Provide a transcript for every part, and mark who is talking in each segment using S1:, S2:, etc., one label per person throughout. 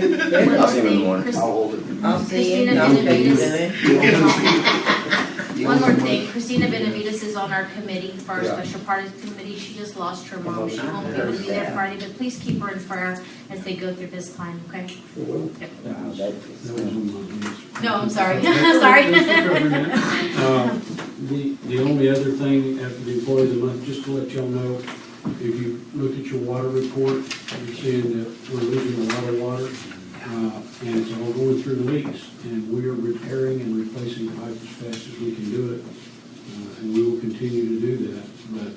S1: Yeah, I'll see him in the morning.
S2: Chris-
S3: I'll hold it.
S4: I'll see you.
S2: Christina Benavides.
S3: You'll
S2: One more
S3: remember.
S2: thing, Christina Benavides is on our committee, for our
S3: Yeah.
S2: special parties committee, she just lost her mom, she
S3: Oh,
S2: won't be able to be there
S4: yeah.
S2: Friday, but please keep her in prayer as they go through this time, okay? Yep.
S3: Yeah, that-
S2: No, I'm sorry, sorry.
S5: Uh, The, the only other thing after the employee of the month, just to let y'all know, if you look at your water report, you're seeing that we're losing a lot of water. uh, And it's all going through leaks, and we are repairing and replacing pipe as fast as we can do it. uh, And we will continue to do that, but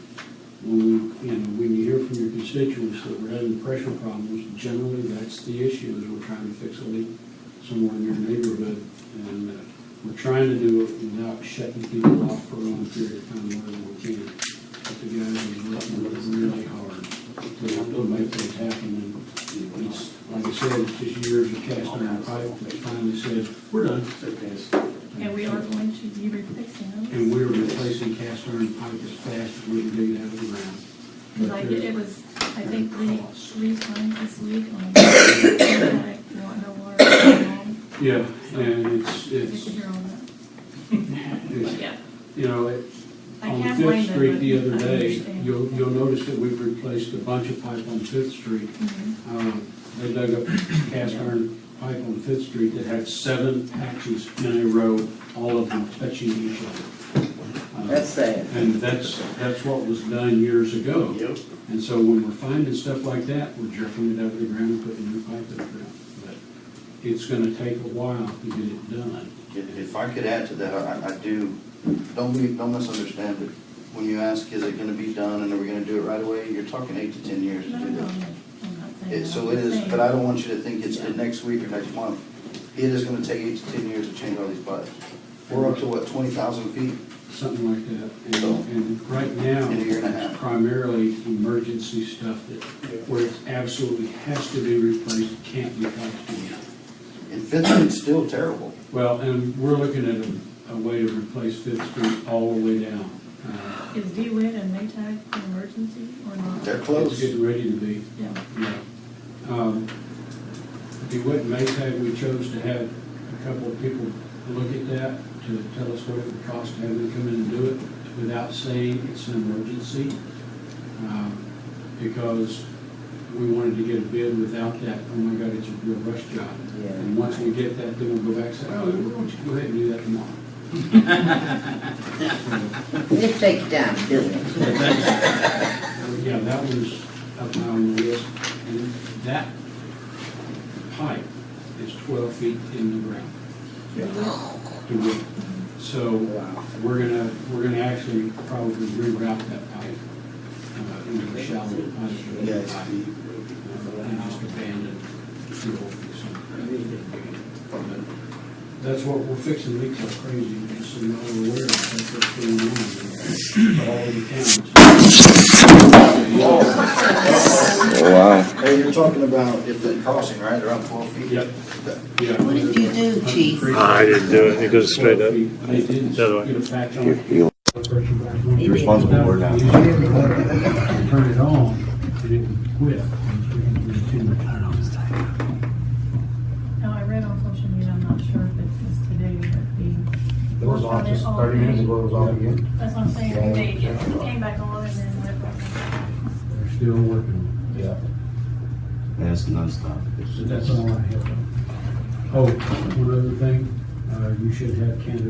S5: when we, you know, when you hear from your constituents that we're having pressure problems, generally that's the issue, is we're trying to fix a leak somewhere in your neighborhood. And uh, we're trying to do it without shutting people off for a long period of time wherever we can. But the guys are working really hard to- to make things happen. And it's, like I said, it's just years of cast iron pipe that finally said, we're done.
S6: And we are going to be replacing them.
S5: And we're replacing cast iron pipe as fast as we can dig it out of the ground.
S6: Because I
S5: But
S6: did, it
S5: there's-
S6: was, I think, three, three times this week on. I want no water at all.
S5: uh, Yeah, and it's,
S6: You
S5: it's,
S6: should hear on that.
S5: it's,
S6: Yeah.
S5: you know, it,
S6: I
S5: On
S6: can't blame
S5: Fifth
S6: them,
S5: Street the
S6: but
S5: other
S6: I
S5: day,
S6: understand.
S5: you'll, you'll notice that we've replaced a bunch of pipe on Fifth Street.
S6: Mhm.
S5: Um, They dug up cast iron pipe on Fifth Street that had seven patches in a row, all of them touching each other. Uh,
S4: That's sad.
S5: And that's, that's what was done years ago. And so when we're finding stuff like that, we're jerking it out of the ground and putting new pipe in the ground. But It's gonna take a while to get it done.
S3: If if I could add to that, I, I do, don't be, don't misunderstand, but when you ask, is it gonna be done and are we gonna do it right away, you're talking eight to ten years to
S6: No, no,
S3: do
S6: no,
S3: that.
S6: I'm not saying
S3: It,
S6: that.
S3: so
S6: I'm
S3: it is,
S6: saying-
S3: but I don't want you to think it's the next week or next month. It is gonna take eight to ten years to change all these pipes. We're up to what, twenty thousand feet?
S5: something like that.
S3: So-
S5: And, and right now,
S3: In a year and a half.
S5: it's primarily emergency stuff that, where it absolutely has to be replaced, can't be touched again.
S3: And Fifth Street's still terrible.
S5: Well, and we're looking at a, a way to replace Fifth Street all the way down. Uh,
S6: Is D-Wade and Maytag an emergency or not?
S3: They're
S5: It's
S3: close.
S5: getting ready to be,
S6: Yeah.
S5: yeah. Um, DeWitt and Maytag, we chose to have a couple of people look at that to tell us what it would cost to have them come in and do it without saying it's an emergency. um, because we wanted to get a bid without that, oh my God, it's a real rush job.
S4: Yeah.
S5: And once we get that, then we'll go back and say, oh, we want you to go ahead and do that tomorrow.
S4: It takes time, doesn't it?
S5: So, Yeah, that was up high on the list, and that pipe is twelve feet in the ground. To width. So, uh, we're gonna, we're gonna actually probably reroute that pipe, uh, into a shallow pipe. Uh, And just abandon the old piece. But That's what, we're fixing leaks like crazy, just so you're all aware of that's what's going on. All in the towns.
S1: Wow.
S3: Hey, you're talking about if the crossing, right, around twelve feet?
S5: Yep.
S3: That-
S5: Yeah.
S4: What did you do, Chief?
S7: I didn't do it, it goes straight up.
S5: They didn't
S7: The other way.
S5: get a patch on
S1: You're,
S5: it.
S1: you're
S4: He did.
S1: responsible for it now.
S5: Turn it on, and it would quit.
S6: No, I read on social media, I'm not sure if it was today, but the.
S8: It was on just thirty minutes ago, it was off again.
S6: That's what I'm saying, they it came back on and then went back on.
S5: They're still working.
S8: Yeah.
S3: That's nonstop.
S5: So that's all I have. Oh, one other thing, uh, you should have candidates